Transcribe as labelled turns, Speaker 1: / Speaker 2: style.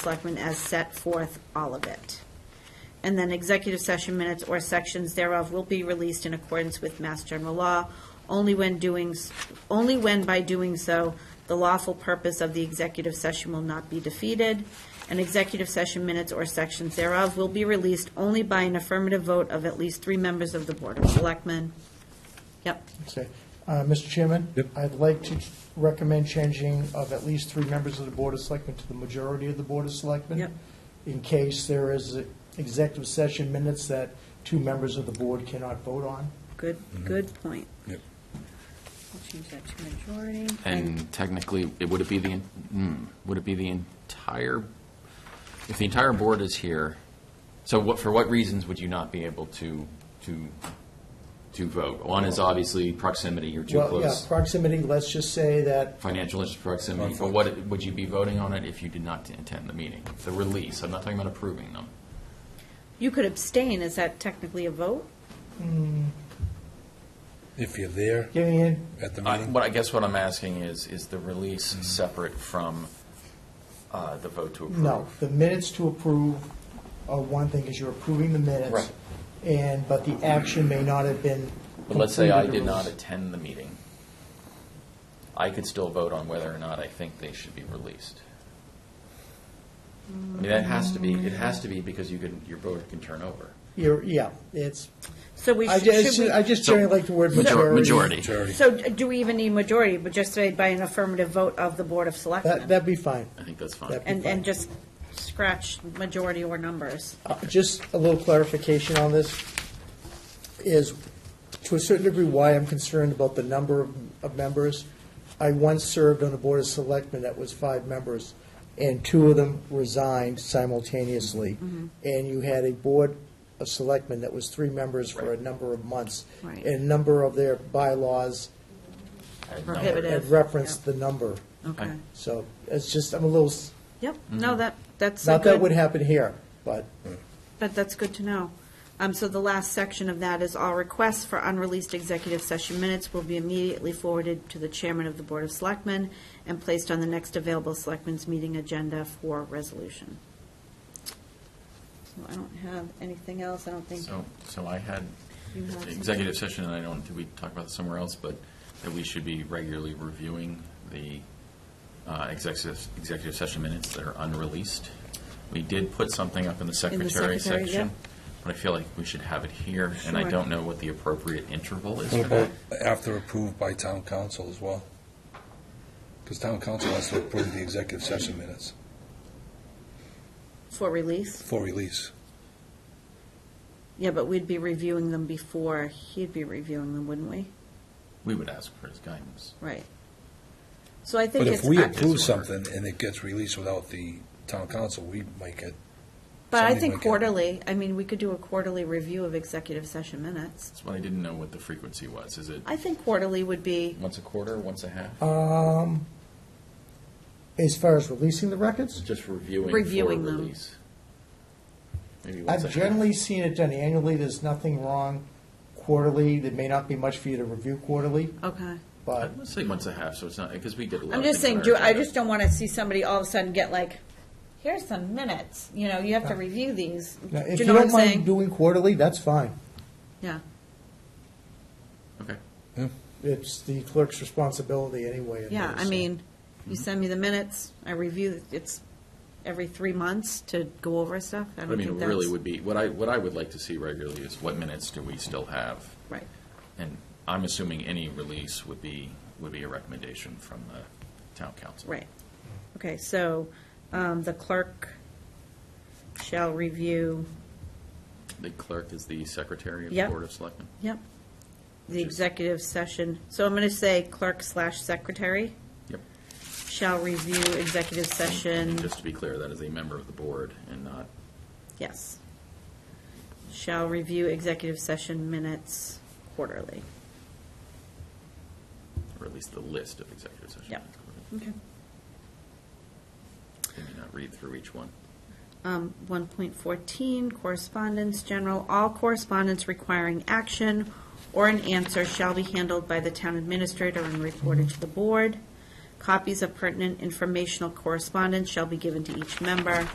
Speaker 1: Selectmen as set forth all of it. And then executive session minutes or sections thereof will be released in accordance with Mass General Law, only when doing, s- only when by doing so, the lawful purpose of the executive session will not be defeated. And executive session minutes or sections thereof will be released only by an affirmative vote of at least three members of the Board of Selectmen. Yep.
Speaker 2: Okay. Uh, Mr. Chairman?
Speaker 3: Yep.
Speaker 2: I'd like to recommend changing of at least three members of the Board of Selectmen to the majority of the Board of Selectmen.
Speaker 1: Yep.
Speaker 2: In case there is executive session minutes that two members of the board cannot vote on.
Speaker 1: Good, good point.
Speaker 3: Yep.
Speaker 1: I'll change that to majority.
Speaker 4: And technically, it, would it be the, en- hmm, would it be the entire, if the entire board is here, so what, for what reasons would you not be able to, to, to vote? One is obviously proximity, you're too
Speaker 2: Well, yeah,
Speaker 4: close,
Speaker 2: proximity, let's just say that,
Speaker 4: financial interest proximity, but what, would you be voting on it if you did not attend the meeting? The release, I'm not talking about approving them.
Speaker 1: You could abstain, is that technically a vote?
Speaker 3: If you're there
Speaker 2: give me in,
Speaker 3: at the
Speaker 4: I-
Speaker 3: meeting,
Speaker 4: What I guess what I'm asking is, is the release separate from uh, the vote to approve?
Speaker 2: Mm-hmm. no, the minutes to approve are one thing, because you're approving the minutes.
Speaker 4: Right.
Speaker 2: And, but the action may not have been.
Speaker 4: But let's say I
Speaker 2: completed
Speaker 4: did
Speaker 2: or-
Speaker 4: not attend the meeting. I could still vote on whether or not I think they should be released. I mean, that has to be, it has to be because you can, your vote can turn over.
Speaker 2: You're, yeah, it's,
Speaker 1: So we
Speaker 2: I
Speaker 1: should,
Speaker 2: just,
Speaker 1: should
Speaker 2: I
Speaker 1: we,
Speaker 2: just generally like the word
Speaker 4: Major-
Speaker 2: majority.
Speaker 3: majority.
Speaker 1: so do we even need majority, but just say by an affirmative vote of the Board of
Speaker 2: That,
Speaker 1: Selectmen?
Speaker 2: that'd be fine.
Speaker 4: I think that's fine.
Speaker 2: That'd be
Speaker 1: And,
Speaker 2: fine.
Speaker 1: and just scratch majority or numbers.
Speaker 2: Uh, Just a little clarification on this is, to a certain degree, why I'm concerned about the number of, of members. I once served on a board of selectmen that was five members, and two of them resigned simultaneously.
Speaker 1: Mm-hmm.
Speaker 2: And you had a board of selectmen that was three members for a
Speaker 4: Right.
Speaker 2: number of months.
Speaker 1: Right.
Speaker 2: And a number of their bylaws
Speaker 4: Add number.
Speaker 1: Prohibited.
Speaker 2: had referenced the number.
Speaker 1: Okay.
Speaker 2: So it's just, I'm a little, s-
Speaker 1: Yep, no, that, that's a
Speaker 2: not that would
Speaker 1: good,
Speaker 2: happen here, but
Speaker 1: but that's good to know. Um, so the last section of that is all requests for unreleased executive session minutes will be immediately forwarded to the chairman of the Board of Selectmen and placed on the next available selectmen's meeting agenda for resolution. So I don't have anything else, I don't think.
Speaker 4: So, so I had
Speaker 1: You have something?
Speaker 4: executive session, and I don't, did we talk about this somewhere else, but that we should be regularly reviewing the uh, executive, executive session minutes that are unreleased. We did put something up in the secretary
Speaker 1: secretary,
Speaker 4: section,
Speaker 1: yep.
Speaker 4: but I feel like we should have it here, and I
Speaker 1: Sure.
Speaker 4: don't know what the appropriate interval is
Speaker 3: What
Speaker 4: for that.
Speaker 3: about after approved by town council as well? Because town council has to approve the executive session minutes
Speaker 1: For release?
Speaker 3: for release.
Speaker 1: Yeah, but we'd be reviewing them before he'd be reviewing them, wouldn't we?
Speaker 4: We would ask for his guidance.
Speaker 1: Right. So I think
Speaker 3: But
Speaker 1: it's.
Speaker 3: if we
Speaker 1: I-
Speaker 3: approve
Speaker 4: It's ordered.
Speaker 3: something and it gets released without the town council, we might get,
Speaker 1: But I
Speaker 3: something
Speaker 1: think
Speaker 3: like that.
Speaker 1: quarterly, I mean, we could do a quarterly review of executive session minutes.
Speaker 4: That's why I didn't know what the frequency was. Is it
Speaker 1: I think quarterly would be,
Speaker 4: once a quarter, once a half?
Speaker 2: Um, as far as releasing the records,
Speaker 4: Just reviewing
Speaker 1: Reviewing
Speaker 4: for
Speaker 1: them.
Speaker 4: release? Maybe once a
Speaker 2: I've
Speaker 4: half.
Speaker 2: generally seen it done annually, there's nothing wrong. Quarterly, there may not be much for you to review quarterly,
Speaker 1: okay.
Speaker 2: but
Speaker 4: Let's say once a half, so it's not, because we did a lot
Speaker 1: I'm
Speaker 4: of
Speaker 1: just
Speaker 4: things on
Speaker 1: saying,
Speaker 4: our
Speaker 1: do, I
Speaker 4: agenda.
Speaker 1: just don't want to see somebody all of a sudden get like, here's some minutes, you know, you have to review these.
Speaker 2: now,
Speaker 1: Do
Speaker 2: if
Speaker 1: you
Speaker 2: you
Speaker 1: know what I'm
Speaker 2: don't mind
Speaker 1: saying?
Speaker 2: doing quarterly, that's fine.
Speaker 1: Yeah,
Speaker 4: Okay.
Speaker 2: It's the clerk's responsibility anyway. in
Speaker 1: yeah,
Speaker 2: those,
Speaker 1: I
Speaker 2: so.
Speaker 1: mean, you send me the minutes, I review, it's every three months to go over stuff. I
Speaker 4: I
Speaker 1: don't
Speaker 4: mean, it
Speaker 1: think
Speaker 4: really
Speaker 1: that's,
Speaker 4: would be, what I, what I would like to see regularly is what minutes do we still have?
Speaker 1: right.
Speaker 4: And I'm assuming any release would be, would be a recommendation from the town council.
Speaker 1: Right. Okay, so um, the clerk shall review,
Speaker 4: The clerk is the secretary of the
Speaker 1: Yep.
Speaker 4: Board of Selectmen.
Speaker 1: yep, the
Speaker 4: Which is-
Speaker 1: executive session. So I'm going to say clerk slash secretary
Speaker 4: Yep.
Speaker 1: shall review executive
Speaker 4: And
Speaker 1: session,
Speaker 4: Just to be clear, that is a member of the board and not,
Speaker 1: yes. Shall review executive session minutes quarterly.
Speaker 4: or at least the list of executive session.
Speaker 1: Yep.
Speaker 4: minutes.
Speaker 1: Okay.
Speaker 4: They may not read through each one.
Speaker 1: Um, 1.14, correspondence, general, all correspondence requiring action or an answer shall be handled by the town administrator and reported to the board. Copies of pertinent informational correspondence shall be given to each member.